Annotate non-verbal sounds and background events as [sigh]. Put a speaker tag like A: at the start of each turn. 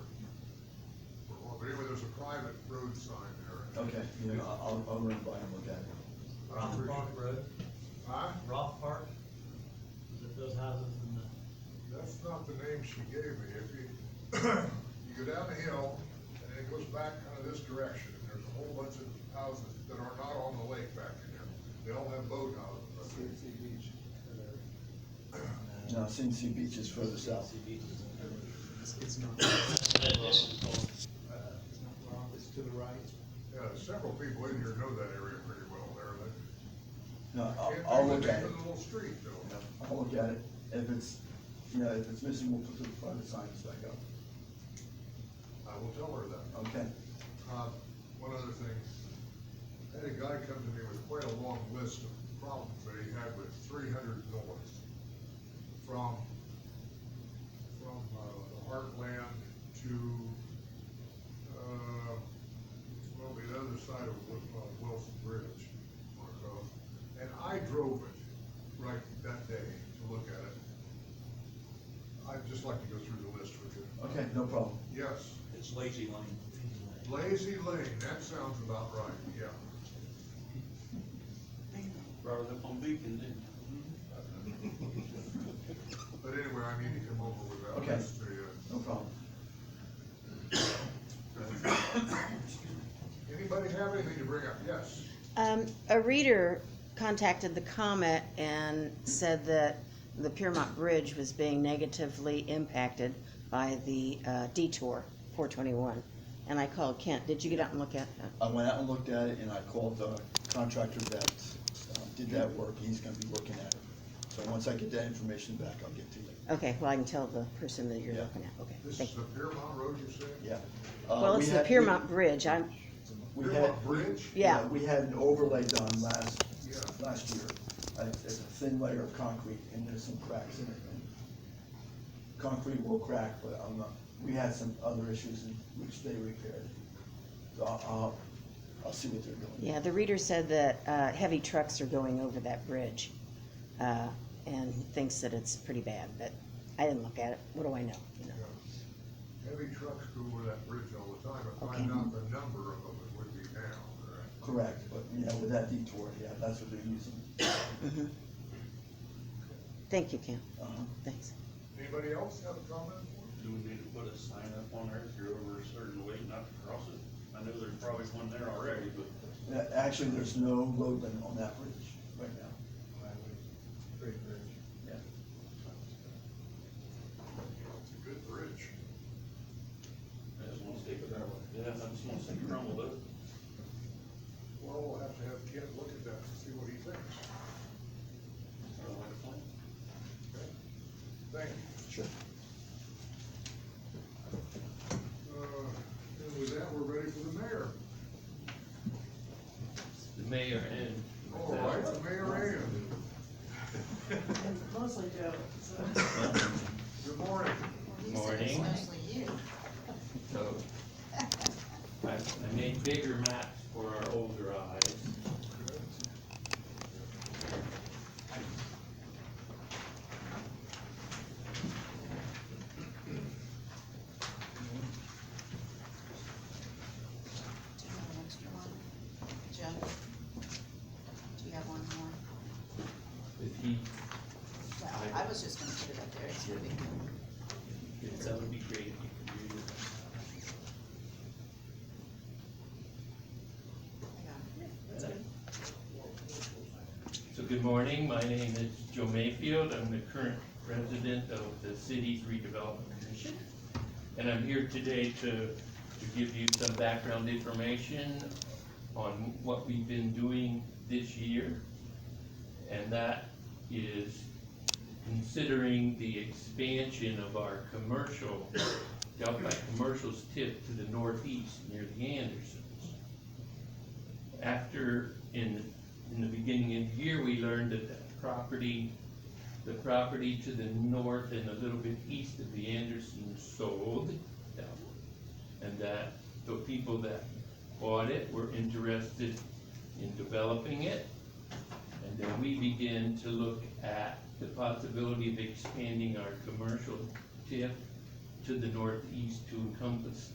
A: that road sign there.
B: Okay, yeah, I'll, I'll run by and look at it.
A: I
C: Rock
A: appreciate
C: Park
A: it.
C: Road,
A: Huh?
C: Rock Park, is it those houses in the,
A: That's not the name she gave me. If you, [coughs] you go down the hill and it goes back kind of this direction, and there's a whole bunch of houses that are not on the lake back in there. They all have boat houses.
B: No, Cincy Beach is further south.
C: CC beaches and everything?
D: It's, it's not,
C: And this is called, uh,
D: it's not wrong, it's to the right.
A: Yeah, several people in here know that area pretty well there. They
B: No, I'll,
A: can't think of
B: I'll look
A: the name
B: at it.
A: of the little street though.
B: I'll look at it. If it's, you know, if it's missing, we'll put the private signs back up.
A: I will tell her that.
B: Okay,
A: Uh, one other thing, I had a guy come to me with quite a long list of problems that he had with three hundred north. From, from, uh, the heartland to, uh, well, the other side of Wil- uh, Wilson Bridge. Marco. And I drove it right that day to look at it. I'd just like to go through the list with you.
B: okay, no problem.
A: Yes.
C: it's Lazy Lane.
A: Lazy Lane, that sounds about right, yeah.
E: Brought it up on Beacon, didn't
A: Mm-hmm. But anyway, I need to come over with that
B: Okay.
A: list to uh, you.
B: No problem.
A: Anybody have anything to bring up? Yes.
F: Um, a reader contacted the Comet and said that the Piermont Bridge was being negatively impacted by the uh, detour, four twenty-one. And I called Kent, did you get out and look at uh,
B: I
F: that?
B: went out and looked at it and I called the contractor that um, did that work. He's gonna be looking at it. So once I get that information back, I'll get to you.
F: Okay, well, I can tell the person that you're
B: Yeah.
F: looking at, okay,
A: This
F: thank
A: is
F: you.
A: the Piermont Road, you said?
B: Yeah. Uh,
F: Well,
B: we
F: it's the
B: had-
F: Piermont Bridge, I'm,
B: we- we had-
A: Piermont Bridge?
F: Yeah.
B: We had an overlay done last,
A: Yeah.
B: last year. Uh, It's a thin layer of concrete and there's some cracks in it. and Concrete will crack, but I'm not, we had some other issues in which they repaired. So I'll, I'll, I'll see what they're doing.
F: yeah, the reader said that, uh, heavy trucks are going over that bridge. Uh, and thinks that it's pretty bad, but I didn't look at it, what do I know, you know?
A: Yeah. Heavy trucks go over that bridge all the time, but
F: Okay.
A: find out the number of them it would be now, correct?
B: Correct, but, you know, with that detour, yeah, that's what they're using.
F: Thank you, Kent,
B: Uh-huh.
F: thanks.
A: Anybody else have a comment?
E: we? Do we need to put a sign up on there if you're over a certain weight not to cross it? I know there's probably one there already, but
B: Yeah, Actually, there's no load limit on that bridge right now.
A: Great bridge.
B: Yeah.
A: It's a good bridge.
E: I just wanna stick it that way. Yeah, I just wanna stick around with it.
A: Well, we'll have to have Ken look at that and see what he thinks.
E: I don't like the plan.
A: Okay. Thank you.
B: Sure.
A: Uh, And with that, we're ready for the mayor.
G: The mayor and.
A: All right, the mayor in.
H: Mostly Joe, so.
A: Good morning.
G: Morning.
H: Mostly you.
G: So, I, I made bigger maps for our older eyes.
H: Do you have an extra one? Joe? Do you have one more?
G: If he,
H: Well, I was just gonna put it up there, it's no big deal.
G: if that would be great if you could do
H: Hang on.
G: that. So good morning, my name is Joe Mayfield, I'm the current president of the city's redevelopment commission. And I'm here today to, to give you some background information on what we've been doing this year. And that is considering the expansion of our commercial, down by Commercial's tip to the northeast near the Andersons. After, in, in the beginning of the year, we learned that that property, the property to the north and a little bit east of the Andersons sold. And that the people that bought it were interested in developing it. And then we begin to look at the possibility of expanding our commercial tip to the northeast to encompass